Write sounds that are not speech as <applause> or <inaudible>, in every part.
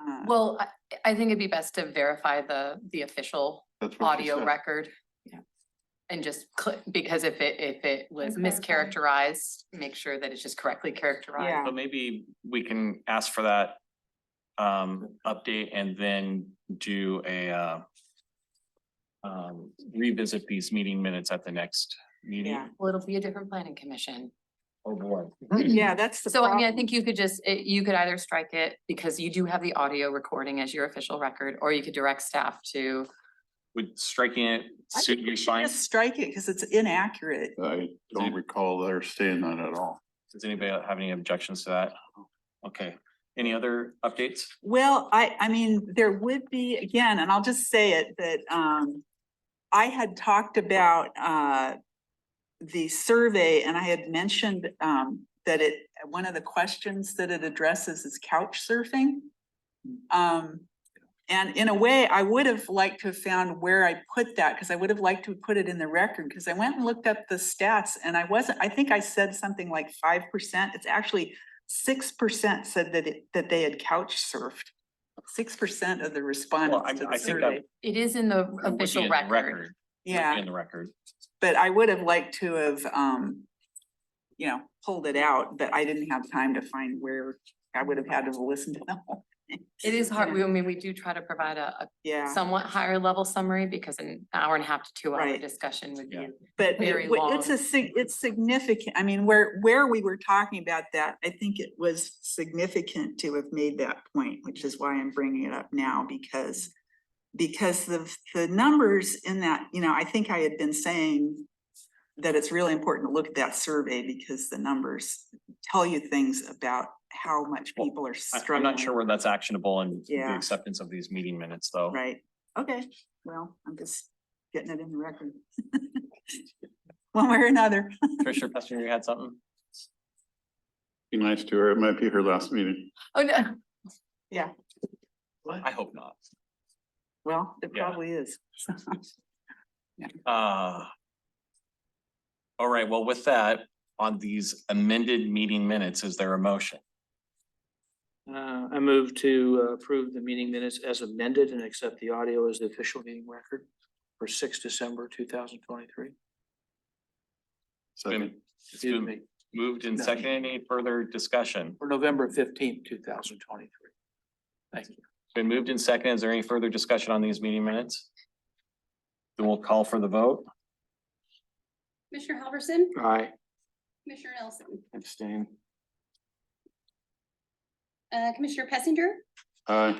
Uh, Well, I, I think it'd be best to verify the, the official That's what she audio said. record. Yeah. And just click, because if it, if it was And clarify. mischaracterized, make sure that it's just correctly characterized. Yeah. But maybe we can ask for that um update and then do a uh. Um revisit these meeting minutes at the next Yeah. meeting Oh, Well, it'll be a different planning commission. or board. Yeah, that's the So I problem. mean, I think you could just, it- you could either strike it because you do have the audio recording as your official record, or you could direct staff to. Would striking it I suit think your we should mind? just strike it because it's inaccurate. I don't recall her saying that at all. Does anybody have any objections to that? Okay, any other updates? Well, I, I mean, there would be, again, and I'll just say it, that, um, I had talked about, uh, the survey and I had mentioned, um, that it, one of the questions that it addresses is couch surfing. Um, and in a way, I would have liked to have found where I put that, because I would have liked to have put it in the record, because I went and looked up the stats and I wasn't, I think I said something like five percent. It's actually six percent said that it, that they had couch surfed. Six percent of the I- respondents to I the think that survey. It is in the It would be official in the record. It would be Yeah, In the record. but I would have liked to have, um, you know, pulled it out, but I didn't have time to find where I would have had to listen to them. It is hard, we, I mean, we do try to provide a, a Yeah, somewhat higher level summary because an hour and a half to two hour Right. discussion would be. Yeah. but very it wa- it's long. a sig- it's significant. I mean, where, where we were talking about that, I think it was significant to have made that point, which is why I'm bringing it up now because because the, the numbers in that, you know, I think I had been saying that it's really important to look at that survey because the numbers tell you things about how much Well, people are I- struggling. I'm not sure where that's actionable in the Yeah. acceptance of these meeting minutes, though. Right, okay, well, I'm just getting it in the record. <laughs> One way or another. Commissioner Pester, you had something? Be nice to her. It might be her last meeting. Oh, no. I hope not. Well, it Yeah. probably is. <laughs> Uh. All right, well, with that, on these amended meeting minutes, is there a motion? Uh, I move to uh, approve the meeting minutes as amended and accept the audio as the official meeting record for six December two thousand twenty-three. Second. It's been moved and No. seconded. Any further discussion? For November fifteenth, two thousand twenty-three. Thank you. Been moved and seconded. Is there any further discussion on these meeting minutes? Then we'll call for the vote. Commissioner Halverson, Aye. Commissioner Nelson, Abstain. uh, Commissioner Pessinger, Aye.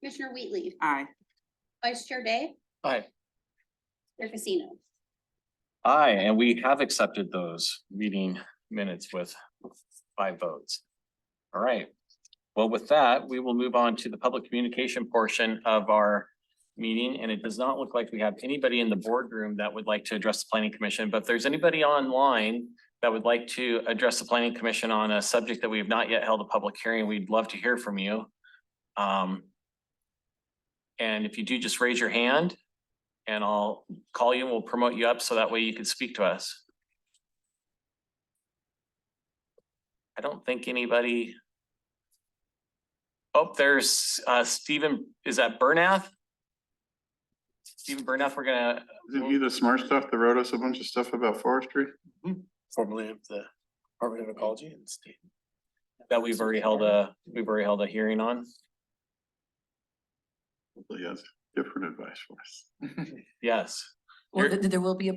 Commissioner Wheatley, Aye. Vice Chair Day, Aye. Chair Casino. Aye, and we have accepted those meeting minutes with five votes. All right. Well, with that, we will move on to the public communication portion of our meeting, and it does not look like we have anybody in the boardroom that would like to address the planning commission, but if there's anybody online that would like to address the planning commission on a subject that we have not yet held a public hearing, we'd love to hear from you. Um, and if you do, just raise your hand and I'll call you and we'll promote you up so that way you can speak to us. I don't think anybody. Oh, there's uh Stephen, is that Bernath? Stephen Bernath, we're gonna. Isn't he the smart stuff that wrote us a bunch of stuff about forestry? Formerly of the Department of Ecology and State. That we've already held a, we've already held a hearing on. Hopefully He has different advice for us. Yes, Well, You're- th- there will be a,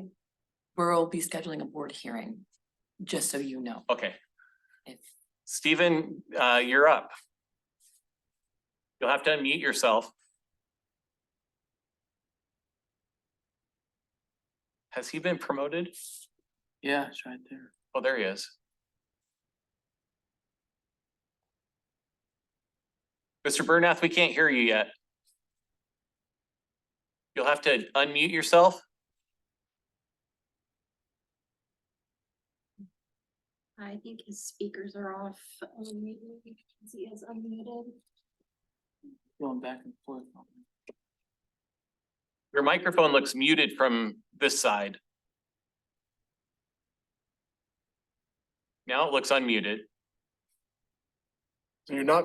we'll be scheduling a board hearing, just so you know. okay. If- Stephen, uh, you're up. You'll have to unmute yourself. Has he been promoted? <laughs> Yeah, it's right there. Oh, there he is. Mr. Bernath, we can't hear you yet. You'll have to unmute yourself. I think his speakers are off. Um, maybe because He is unmuted. Going back and forth. Your microphone looks muted from this side. Now it looks unmuted. You're not